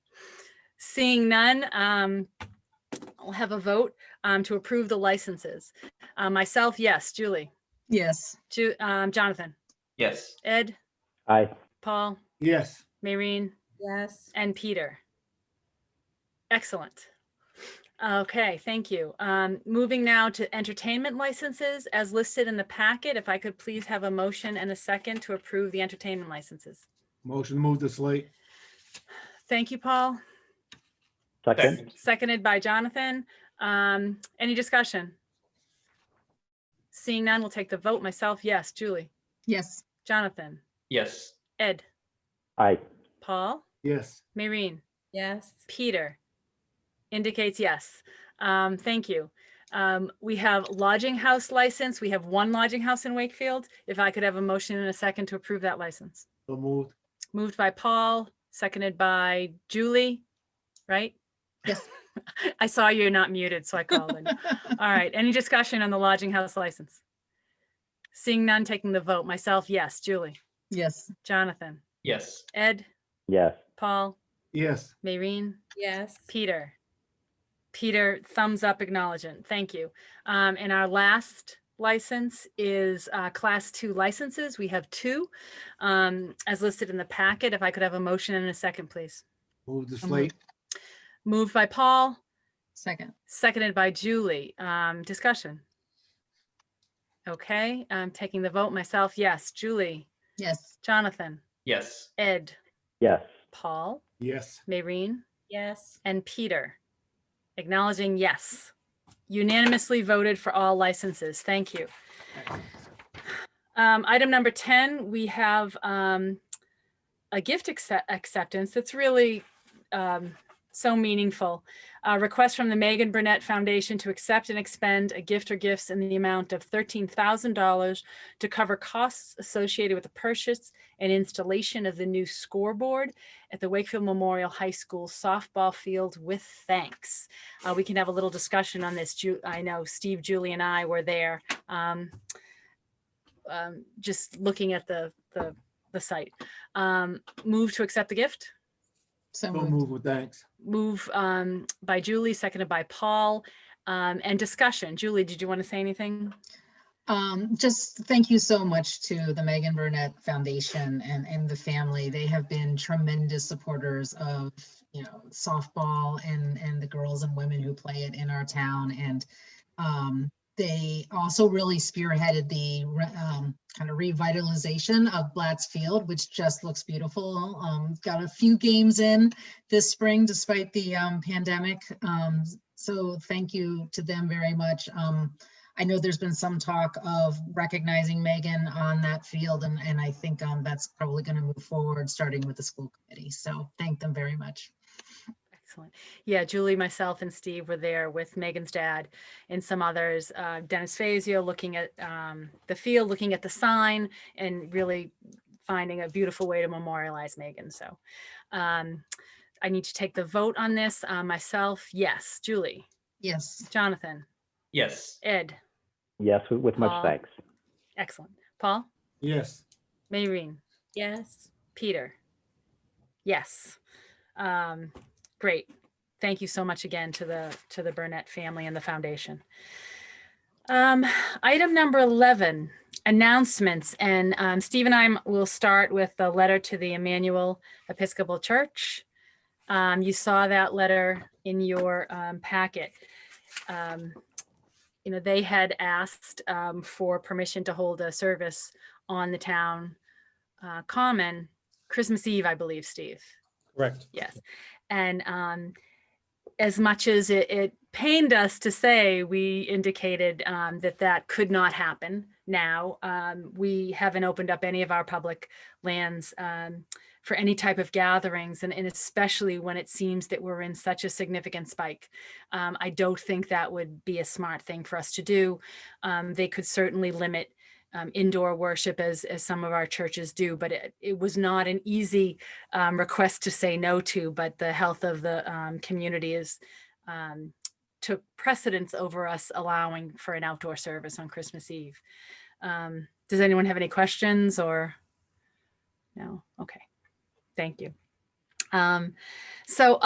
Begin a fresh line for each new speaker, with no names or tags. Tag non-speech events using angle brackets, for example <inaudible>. Seeing none, um, I'll have a vote um, to approve the licenses. Uh, Myself, yes. Julie?
Yes.
Ju- um, Jonathan?
Yes.
Ed?
Aye.
Paul?
yes.
Maureen?
Yes.
And Peter. Excellent. Okay, thank you. Um, Moving now to entertainment licenses as listed in the packet. If I could please have a motion and a second to approve the entertainment licenses.
Motion to move the slate,
Thank you, Paul.
Second.
Seconded by Jonathan. Um, Any discussion? Seeing none, we'll take the vote. Myself, yes. Julie,
Yes.
Jonathan,
Yes.
Ed,
Aye.
Paul,
yes.
Maureen.
Yes.
Peter indicates yes. Um, thank you. Um, we have lodging house license. We have one lodging house in Wakefield. If I could have a motion in a second to approve that license.
So moved,
Moved by Paul, seconded by Julie, right?
Yes.
<laughs> I saw you're not muted, so I called in. All right, any discussion on the lodging house license? Seeing none, taking the vote. Myself, yes. Julie,
<laughs> Yes.
Jonathan,
Yes.
Ed,
Yes.
Paul,
yes.
Maureen,
Yes.
Peter. Peter, thumbs up acknowledgement. Thank you. Um, and our last license is uh, class two licenses. We have two um, as listed in the packet. If I could have a motion and a second, please.
Move the
So
slate,
moved.
Moved by Paul,
Second.
seconded by Julie. Um, discussion. Okay, I'm taking the vote myself. Yes, Julie,
Yes.
Jonathan,
Yes.
Ed,
Yes.
Paul,
yes.
Maureen.
Yes.
and Peter, acknowledging yes. Unanimously voted for all licenses. Thank you. Um, Item number 10, we have um, a gift accept- acceptance that's really um, so meaningful. A request from the Megan Burnett Foundation to accept and expend a gift or gifts in the amount of $13,000 to cover costs associated with the purchase and installation of the new scoreboard at the Wakefield Memorial High School softball field with thanks. Uh, we can have a little discussion on this. Ju- I know Steve, Julie, and I were there, um, um, just looking at the the, the site. Um, move to accept the gift.
So
So
moved.
moved with thanks.
Move um, by Julie, seconded by Paul. Um, and discussion. Julie, did you want to say anything?
Um, just thank you so much to the Megan Burnett Foundation and, and the family. They have been tremendous supporters of, you know, softball and, and the girls and women who play it in our town. And, um, they also really spearheaded the, re- um, kind of revitalization of Blatt's Field, which just looks beautiful. Um, got a few games in this spring despite the, um, pandemic. Um, so thank you to them very much. Um, I know there's been some talk of recognizing Megan on that field, and, and I think um, that's probably going to move forward, starting with the school committee. So thank them very much.
Excellent. Yeah, Julie, myself, and Steve were there with Megan's dad and some others. Uh, Dennis Fazio looking at um, the field, looking at the sign, and really finding a beautiful way to memorialize Megan. So um, I need to take the vote on this. Uh, myself, yes. Julie,
Yes,
Jonathan,
Yes.
Ed,
Yes, with- with
Aye.
much thanks.
excellent. Paul,
Yes,
Maureen,
Yes.
Peter. Yes. Um, great. Thank you so much again to the, to the Burnett family and the foundation. Um, item number 11, announcements. And, um, Steve and I will start with the letter to the Emmanuel Episcopal Church. Um, you saw that letter in your, um, packet. Um, you know, they had asked, um, for permission to hold a service on the town uh, common Christmas Eve, I believe, Steve.
Correct.
Yes. And um, as much as it, it pained us to say, we indicated um, that that could not happen now. Um, we haven't opened up any of our public lands um, for any type of gatherings, and, and especially when it seems that we're in such a significant spike. Um, I don't think that would be a smart thing for us to do. Um, they could certainly limit um, indoor worship as, as some of our churches do, but it, it was not an easy um, request to say no to, but the health of the um, community is um, took precedence over us allowing for an outdoor service on Christmas Eve. Um, does anyone have any questions or? No, okay. Thank you. Um, so